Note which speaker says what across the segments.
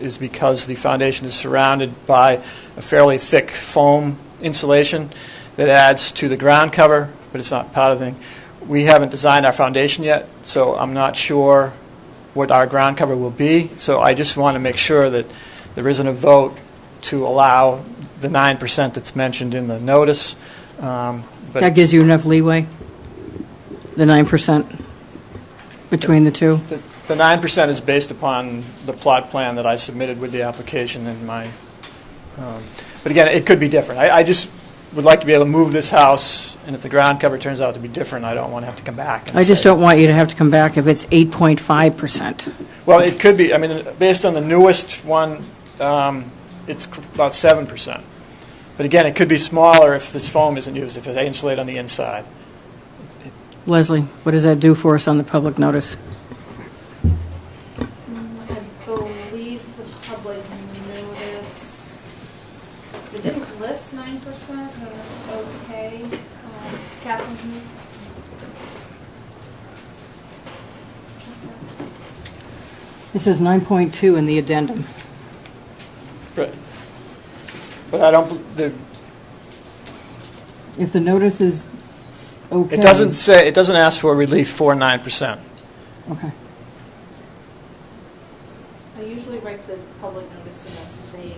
Speaker 1: is because the foundation is surrounded by a fairly thick foam insulation that adds to the ground cover, but it's not part of the thing. We haven't designed our foundation yet, so I'm not sure what our ground cover will be. So I just want to make sure that there isn't a vote to allow the 9% that's mentioned in the notice. Um, but-
Speaker 2: That gives you enough leeway, the 9% between the two?
Speaker 1: The the 9% is based upon the plot plan that I submitted with the application and my, um, but again, it could be different. I I just would like to be able to move this house, and if the ground cover turns out to be different, I don't want to have to come back. and
Speaker 2: I just
Speaker 1: say-
Speaker 2: don't want you to have to come back if it's 8.5%.
Speaker 1: Well, it could be, I mean, based on the newest one, um, it's c- about 7%. But again, it could be smaller if this foam isn't used, if it's insulated on the inside.
Speaker 2: Leslie, what does that do for us on the public notice?
Speaker 3: I believe the public notice, did it list nine percent, and it's okay? Um, Catherine, can you?
Speaker 2: It says 9.2 in the addendum.
Speaker 1: Right. But I don't, bel- the
Speaker 2: If the notice is okay.
Speaker 1: It doesn't say, it doesn't ask for relief for 9%.
Speaker 2: Okay.
Speaker 3: I usually write the public notice in a vague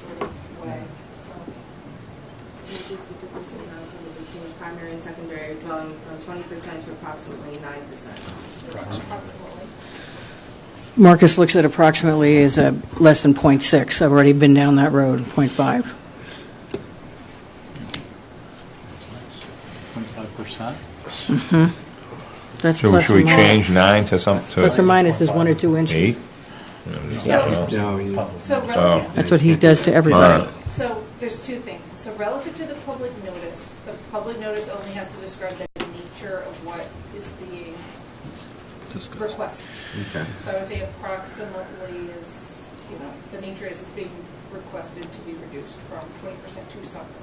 Speaker 3: sort of way, so.
Speaker 4: between primary and secondary dwelling from twenty percent to approximately nine percent.
Speaker 3: Approximately.
Speaker 2: Marcus looks at approximately as a less than .6. I've already been down that road, .5.
Speaker 5: 25%?
Speaker 2: That's
Speaker 6: So
Speaker 2: plus
Speaker 6: should
Speaker 2: or
Speaker 6: we
Speaker 2: minus.
Speaker 6: change nine to some,
Speaker 2: Plus or
Speaker 6: to
Speaker 2: minus is one or two inches.
Speaker 6: eight?
Speaker 3: So, so relative.
Speaker 2: That's what he does to everybody.
Speaker 6: Alright.
Speaker 3: So there's two things. So relative to the public notice, the public notice only has to describe the nature of what is being requested.
Speaker 7: Okay.
Speaker 3: So I would say approximately is, you know, the nature is it's being requested to be reduced from twenty percent to something.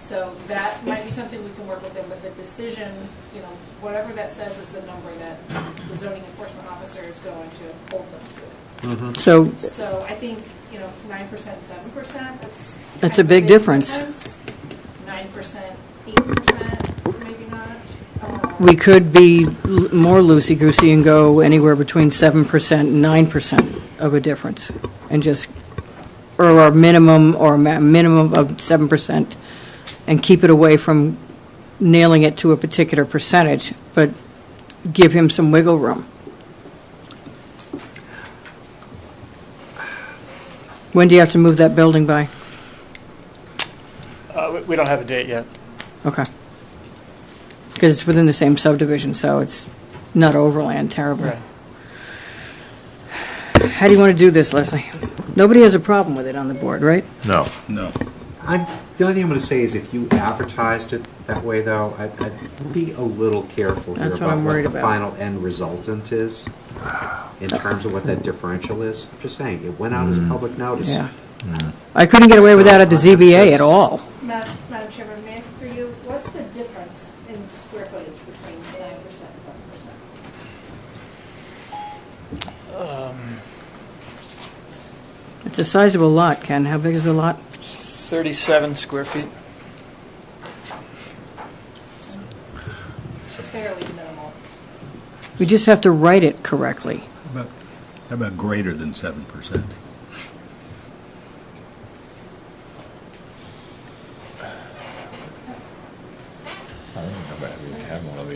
Speaker 3: So that might be something we can work with them, but the decision, you know, whatever that says is the number that the zoning enforcement officer is going to hold them to.
Speaker 2: So
Speaker 3: So I think, you know, nine percent, seven percent, that's.
Speaker 2: That's a big difference.
Speaker 3: Nine percent, eight percent, maybe not. Uh,
Speaker 2: we could be l- more loosey-goosey and go anywhere between 7% and 9% of a difference, and just, or our minimum, or ma- minimum of 7%, and keep it away from nailing it to a particular percentage, but give him some wiggle room. When do you have to move that building by?
Speaker 1: Uh, we- We don't have a date yet.
Speaker 2: Okay. Because it's within the same subdivision, so it's not overland terribly. How do you want to do this, Leslie? Nobody has a problem with it on the board, right?
Speaker 6: No.
Speaker 5: No.
Speaker 7: I'm, the only thing I'm going to say is if you advertised it that way, though, I'd, I'd be a little careful here
Speaker 2: That's what
Speaker 7: about
Speaker 2: I'm worried
Speaker 7: what the
Speaker 2: about.
Speaker 7: final end resultant is in terms of what that differential is. I'm just saying, it went out as a public notice.
Speaker 2: Yeah. Mm. I couldn't get away with that at the ZBA at all.
Speaker 3: Madam Madam Chairman, may I, for you, what's the difference in square footage between nine percent and seven percent?
Speaker 1: Um,
Speaker 2: It's the size of a lot, Ken. How big is the lot?
Speaker 1: 37 square feet.
Speaker 3: Fairly minimal.
Speaker 2: We just have to write it correctly.
Speaker 5: How about- how about greater than 7%?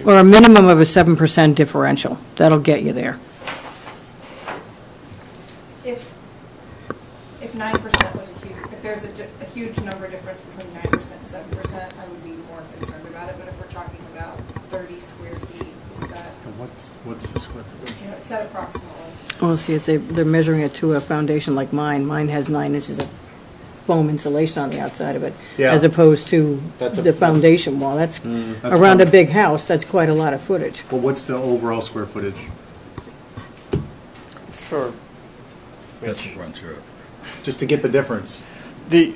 Speaker 2: Or a minimum of a 7% differential. That'll get you there.
Speaker 3: If, if nine percent was a huge, if there's a, di- a huge number difference between nine percent and seven percent, I would be more concerned about it, but if we're talking about thirty square feet, is that,
Speaker 5: What's, what's the square?
Speaker 3: you know, is that approximately?
Speaker 2: Well, Oh, see, if they, they're measuring it to a foundation like mine, mine has nine inches of foam insulation on the outside of it,
Speaker 7: Yeah.
Speaker 2: as opposed to
Speaker 7: That's a- Mm.
Speaker 2: the foundation wall. That's,
Speaker 5: that's
Speaker 2: around a
Speaker 5: quite-
Speaker 2: big house, that's quite a lot of footage.
Speaker 5: Well, what's the overall square footage?
Speaker 1: For
Speaker 5: That's what runs through. Just to get the difference.
Speaker 1: the,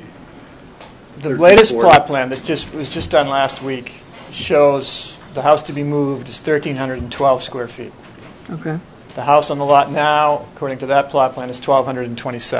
Speaker 1: the
Speaker 5: 13,
Speaker 1: latest
Speaker 5: 40.
Speaker 1: plot plan that just, was just done last week shows the house to be moved is 1,312 square feet.
Speaker 2: Okay.
Speaker 1: The house on the lot now, according to that plot plan, is 1,227.